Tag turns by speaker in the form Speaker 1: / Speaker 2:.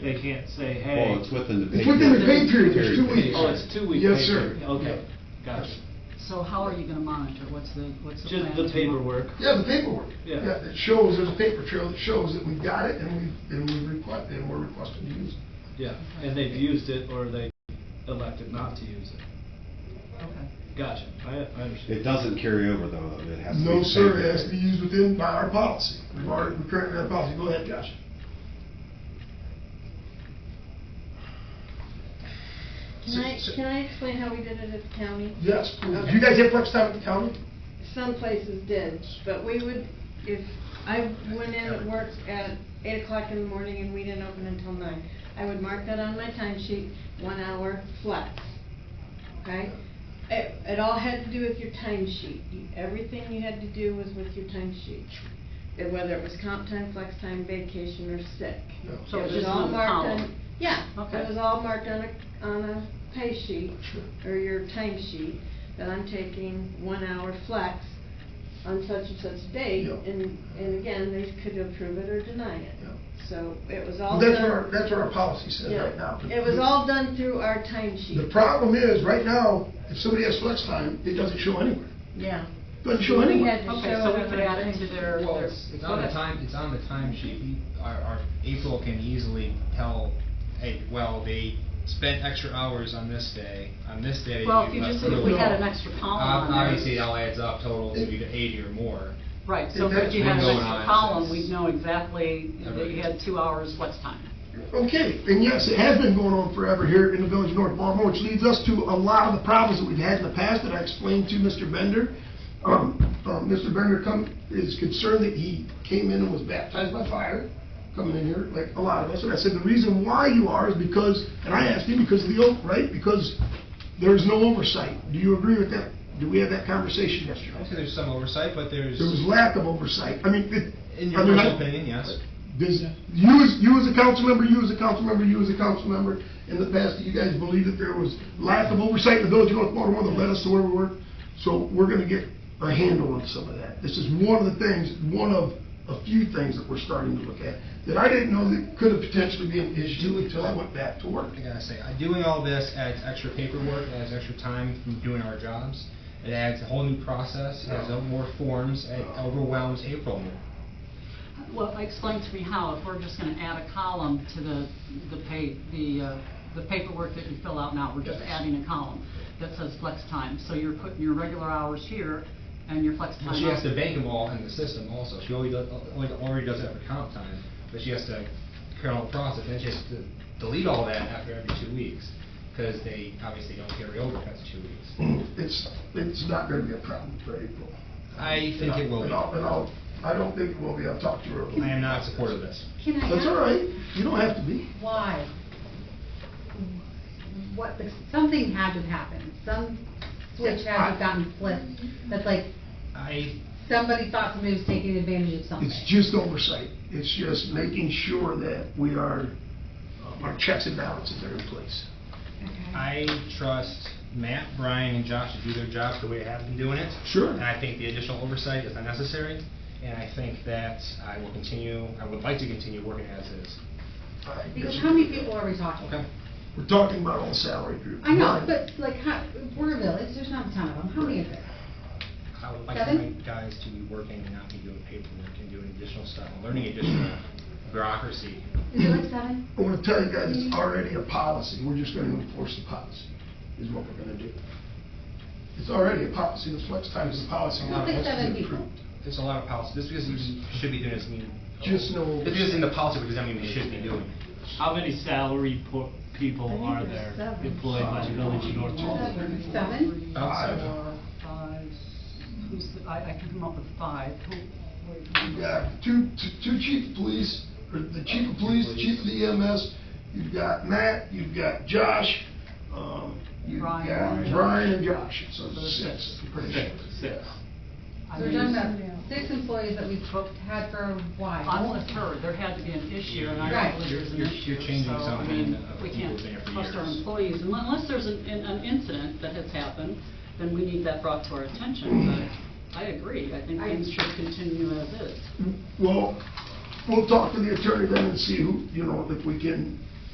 Speaker 1: They can't say, hey.
Speaker 2: Well, it's within the pay
Speaker 3: Oh, It's
Speaker 2: period.
Speaker 3: within the pay period, it's two
Speaker 2: Period.
Speaker 3: weeks.
Speaker 1: Oh, it's two weeks.
Speaker 3: Yes,
Speaker 1: pay
Speaker 3: sir.
Speaker 1: period. Okay, gotcha.
Speaker 4: So how are you gonna monitor? What's the, what's the plan?
Speaker 1: Just the
Speaker 4: to monitor?
Speaker 1: paperwork.
Speaker 3: Yeah, the paperwork.
Speaker 1: Yeah.
Speaker 3: It shows, there's a paper trail that shows that we've got it and we, and we request, and we're requesting to use it.
Speaker 1: Yeah, and they've used it or they elected not to use it.
Speaker 4: Okay.
Speaker 1: Gotcha, I, I understand.
Speaker 2: It doesn't carry over though, it has to be.
Speaker 3: No,
Speaker 2: the
Speaker 3: sir,
Speaker 2: pay
Speaker 3: it has to be
Speaker 2: period.
Speaker 3: used within, by our policy. We've already, we currently have a policy. Go ahead, Josh.
Speaker 5: Can I, can I explain how we did it at the county?
Speaker 3: Yes, please. Do you guys have flex time at the county?
Speaker 5: Some places did, but we would, if, I went in at work at eight o'clock in the morning and we didn't open until nine. I would mark that on my timesheet. one hour flex, okay? It, it all had to do with your timesheet. You Everything you had to do was with your timesheet. sheet. Whether it was comp time, flex time, vacation, or sick.
Speaker 3: No.
Speaker 4: So
Speaker 5: It
Speaker 4: it's
Speaker 5: was
Speaker 4: just
Speaker 5: all
Speaker 4: one
Speaker 5: marked on-
Speaker 4: column.
Speaker 5: Yeah,
Speaker 4: Okay.
Speaker 5: it was all marked on a, on a pay sheet, or your time sheet, that I'm taking one hour flex on such and such date,
Speaker 3: Yeah.
Speaker 5: and, and again, they could approve it or deny it.
Speaker 3: Yeah.
Speaker 5: So it was all
Speaker 3: Well,
Speaker 5: done.
Speaker 3: That's what our, that's what our policy says
Speaker 5: Yeah.
Speaker 3: right now.
Speaker 5: It was all done through our time sheet.
Speaker 3: The problem is, right now, if somebody has flex time, it doesn't show anywhere.
Speaker 5: Yeah.
Speaker 3: Doesn't show
Speaker 5: We
Speaker 3: anywhere.
Speaker 5: had to
Speaker 4: Okay,
Speaker 5: show
Speaker 4: so
Speaker 5: it
Speaker 4: we could add
Speaker 5: on our
Speaker 4: it to
Speaker 5: timesheet.
Speaker 4: their.
Speaker 6: Well,
Speaker 4: their-
Speaker 6: it's it's on the time, it's on the timesheet. We, our, our April can easily tell, hey, well, they spent extra hours on this day, on this day.
Speaker 4: Well, if you just, if we
Speaker 3: No.
Speaker 4: had an extra column on
Speaker 6: Ob-
Speaker 4: there.
Speaker 6: Obviously, it all adds up total to either eighty or more.
Speaker 4: Right, so
Speaker 3: If that's
Speaker 4: if you had an
Speaker 6: been going
Speaker 4: extra
Speaker 6: on
Speaker 4: column,
Speaker 6: since-
Speaker 4: we'd know exactly that you had two hours flex time.
Speaker 3: Okay, and yes, it has been going on forever here in the village of North Baltimore, which leads us to a lot of the problems that we've had in the past that I explained to Mr. Bender. Um, um, Mr. Bender come, is concerned that he came in and was baptized by fire, coming in here, like a lot of us. And I said, the reason why you are is because, and I asked him, because of the oath, right? Because there's no oversight. Do you agree with that? Do we have that conversation yesterday?
Speaker 6: Obviously, there's some oversight, but there's,
Speaker 3: There was lack of oversight. I mean, it.
Speaker 6: in your
Speaker 3: I mean, I-
Speaker 6: personal opinion, yes.
Speaker 3: does, you as, you as a council member, you as a council member, you as a council member, in the past, you guys believe that there was lack of oversight in the village of North Baltimore that led us to where we were. So we're gonna get a handle on some of that. This is one of the things, one of a few things that we're starting to look at, that I didn't know that could have potentially been an issue until I went back to work.
Speaker 6: I gotta say, uh, doing all this adds extra paperwork, adds extra time from doing our jobs. It adds a whole new process, adds up more forms, it overwhelms April more.
Speaker 4: Well, explain to me how, if we're just gonna add a column to the, the pay, the, uh, the paperwork that you fill out now, we're just
Speaker 3: Yes.
Speaker 4: adding a column that says flex time, so you're putting your regular hours here and your flex time
Speaker 6: Well, she
Speaker 4: out.
Speaker 6: has to bank them all in the system also. She already does, already- already does that for comp time, but she has to carry out the process, and she has to delete all that after every two weeks, because they obviously don't carry over past two weeks.
Speaker 3: It's, it's not gonna be a problem for April.
Speaker 6: I think it will
Speaker 3: And
Speaker 6: be.
Speaker 3: I'll, and
Speaker 6: I
Speaker 3: I'll, I don't think it will be, I'll talk to her.
Speaker 6: am not supportive of this.
Speaker 5: Can I?
Speaker 3: That's
Speaker 5: ask-
Speaker 3: all right, you don't have to be.
Speaker 7: Why? What, something had to have happened, some switch had to have gotten flipped, that's like,
Speaker 6: I,
Speaker 7: somebody thought somebody was taking advantage of something.
Speaker 3: It's just oversight. It's just making sure that we are, uh, our checks and balances are in place.
Speaker 6: I trust Matt, Brian, and Josh to do their jobs the way they have been doing it.
Speaker 3: Sure.
Speaker 6: And I think the additional oversight is unnecessary, and I think that I will continue, I would like to continue working as is.
Speaker 7: Because how many people are we talking?
Speaker 3: We're talking about all salary groups.
Speaker 7: I know, but like, how, we're a village, there's not a ton of them, how many is there?
Speaker 6: I would like my
Speaker 7: Kevin?
Speaker 6: guys to be working and not be doing paperwork and doing additional stuff and learning additional bureaucracy.
Speaker 7: Is it like seven?
Speaker 3: I want to tell you guys, it's already a policy. We're just going to enforce the policy, is what we're going to do. It's already a policy. The flex time is a policy.
Speaker 7: Well, six, seven people.
Speaker 6: There's a lot of policy, just because you should be doing this mean.
Speaker 3: Just no-
Speaker 6: Just because in the policy, it doesn't mean you should be doing. it.
Speaker 1: How many salary po- people
Speaker 5: I think
Speaker 1: are
Speaker 5: there's
Speaker 1: there
Speaker 5: seven.
Speaker 1: employed by the village of North Baltimore?
Speaker 7: Seven?
Speaker 6: Outside.
Speaker 4: Four, Uh, five, who's, the- I, I can come up with five. Who- wait, who-
Speaker 3: Yeah, two, two- two chief of police, or the chief of police, the chief of the EMS, you've got Matt, you've got Josh, um, you've
Speaker 4: Brian.
Speaker 3: got Brian and Josh, so it's six, I'm pretty sure.
Speaker 1: Six, six.
Speaker 4: I
Speaker 7: So we're
Speaker 4: mean,
Speaker 7: talking about six employees that we've booked, had for a while.
Speaker 4: I'm with her, there had to be an issue, and I
Speaker 7: Right.
Speaker 4: don't believe there's an
Speaker 6: You're-
Speaker 4: issue.
Speaker 6: you're changing
Speaker 4: So, I
Speaker 6: something
Speaker 4: mean,
Speaker 6: of
Speaker 4: We
Speaker 6: people
Speaker 4: can't
Speaker 6: there for
Speaker 4: trust our
Speaker 6: years.
Speaker 4: employees, and unless there's an, an an incident that has happened, then we need that brought to our attention, but I agree, I think
Speaker 7: I-
Speaker 4: things should continue as is.
Speaker 3: Well, we'll talk to the attorney then and see who, you know, if we can